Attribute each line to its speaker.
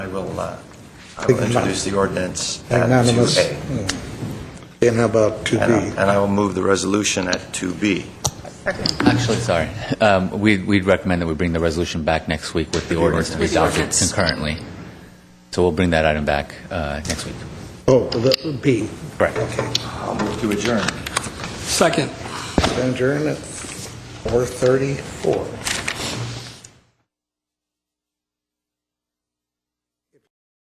Speaker 1: I will, uh, I will introduce the ordinance at
Speaker 2: Magnanimous.
Speaker 1: 2A.
Speaker 2: Yeah. Hmm. And how about
Speaker 1: And I-
Speaker 2: 2B?
Speaker 1: And I will move the resolution at 2B.
Speaker 3: Actually, sorry. Um, we- We'd recommend that we bring the resolution back next week with the ordinance to be
Speaker 4: With the
Speaker 3: adopted
Speaker 4: ordinance.
Speaker 3: concurrently. So we'll bring that item back uh, next week.
Speaker 2: Oh, the B.
Speaker 3: Correct.
Speaker 1: I'll move to adjourn.
Speaker 5: Second.
Speaker 2: Adjourn at 4:34.